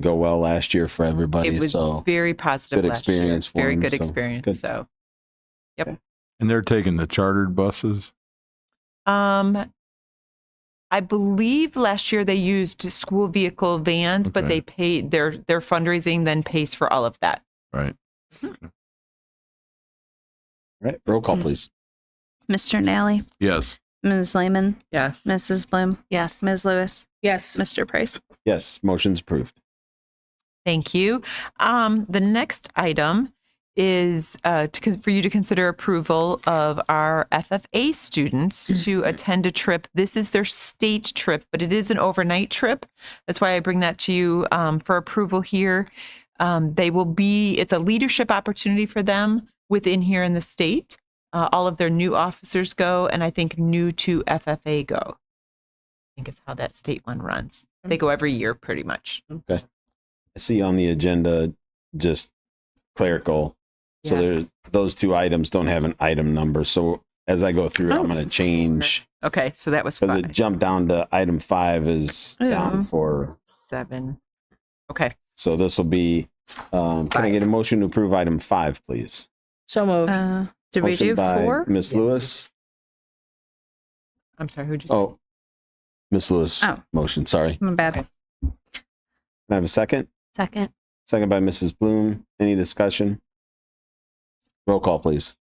go well last year for everybody. It was so very positive good last year. experience for Very them, good so experience. good. So, And they're taking the chartered buses. um, I believe last year they used school vehicle vans, but Okay. they paid their their fundraising then pays for all of that. Right. All right, roll call, please. Mr. Nally, Yes. Ms. Lehman, Yes. Mrs. Bloom, Yes. Ms. Lewis, Yes. Mr. Price. Yes, motion's approved. Thank you. Um, the next item is uh, to, con- for you to consider approval of our FFA students to attend a trip. This is their state trip, but it is an overnight trip. That's why I bring that to you um, for approval here. Um, they will be, it's a leadership opportunity for them within here in the state. Uh, all of their new officers go, and I think new to FFA go. I think is how that state one runs. They go every year pretty much. I see on the agenda just clerical. So Yeah. there, those two items don't have an item number. So as I go through, I'm going to change Okay, so that was because it five, jumped down to item five is down Yeah. for. seven. Okay, So this will be. Um, can I get a motion to approve item five, please? So moved. Uh, did motion we do by four? Miss Lewis. I'm sorry, who'd you say? Oh, Miss Lewis. Oh. Motion. Sorry. My bad. Can I have a second? Second. Second by Mrs. Bloom. Any discussion? Roll call, please.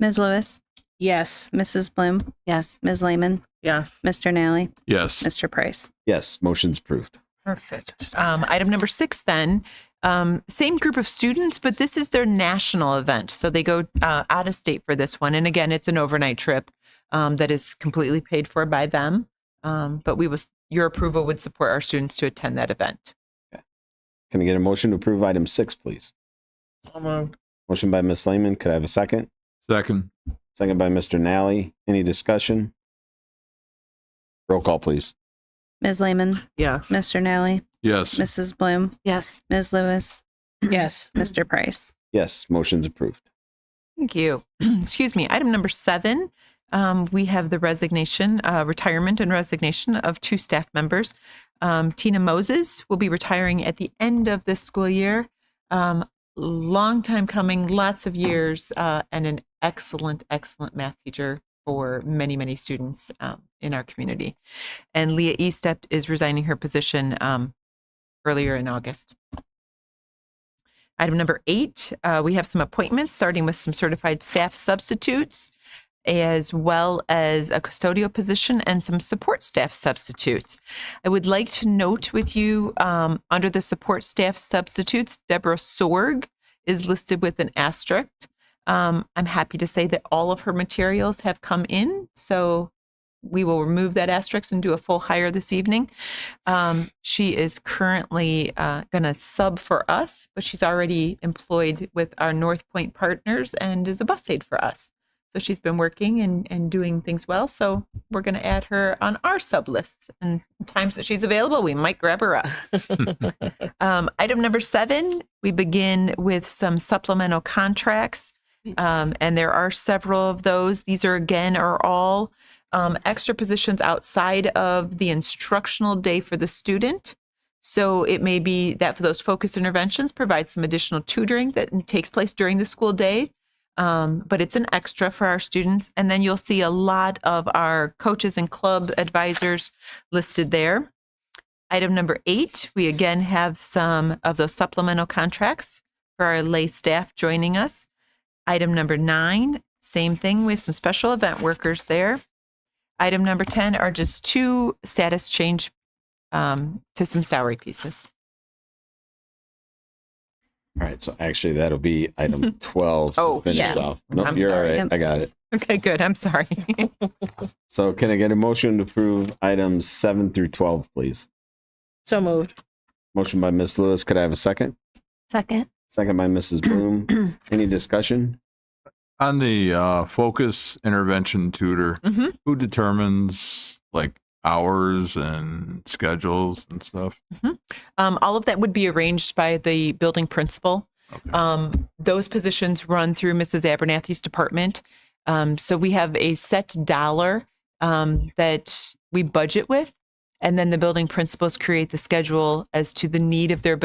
Ms. Lewis, Yes. Mrs. Bloom, Yes. Ms. Lehman, Yes. Mr. Nally, Yes. Mr. Price. Yes, motion's approved. Perfect. Um, item number six, then, um, same group of students, but this is their national event. So they go uh, out of state for this one. And again, it's an overnight trip um, that is completely paid for by them. Um, but we was, your approval would support our students to attend that event. Can I get a motion to approve item six, please? Motion by Ms. Lehman. Could I have a second? Second. Second by Mr. Nally. Any discussion? Roll call, please. Ms. Lehman, Yes. Mr. Nally, Yes. Mrs. Bloom, Yes. Ms. Lewis, Yes. Mr. Price. Yes, motion's approved. Thank you. Excuse me. Item number seven, um, we have the resignation, uh, retirement and resignation of two staff members. Um, Tina Moses will be retiring at the end of this school year. Um, long time coming, lots of years, uh, and an excellent, excellent math teacher for many, many students um, in our community. And Leah Estep is resigning her position um, earlier in August. Item number eight, uh, we have some appointments, starting with some certified staff substitutes, as well as a custodial position and some support staff substitutes. I would like to note with you, um, under the support staff substitutes, Deborah Sorg is listed with an asterisk. Um, I'm happy to say that all of her materials have come in, so we will remove that asterisk and do a full hire this evening. Um, she is currently uh, going to sub for us, but she's already employed with our North Point partners and is a bus aide for us. So she's been working and, and doing things well. So we're going to add her on our sub lists and times that she's available, we might grab her up. um, item number seven, we begin with some supplemental contracts. Um, and there are several of those. These are again, are all um, extra positions outside of the instructional day for the student. So it may be that for those focused interventions, provide some additional tutoring that takes place during the school day. Um, but it's an extra for our students. And then you'll see a lot of our coaches and club advisors listed there. Item number eight, we again have some of those supplemental contracts for our lay staff joining us. Item number nine, same thing. We have some special event workers there. Item number 10 are just two status change um, to some salary pieces. All right, so actually that'll be item 12 to Oh, finish yeah. off. Nope, I'm you're sorry. all right. I got it. Okay, good. I'm sorry. So can I get a motion to approve items seven through 12, please? So moved. Motion by Ms. Lewis. Could I have a second? Second. Second by Mrs. Bloom. Any discussion? On the uh, focus intervention tutor, Mhm. who determines like hours and schedules and stuff? um, all of that would be arranged by the building principal. Okay. Um, those positions run through Mrs. Abernathy's department. Um, so we have a set dollar um, that we budget with, and then the building principals create the schedule as to the need of their building.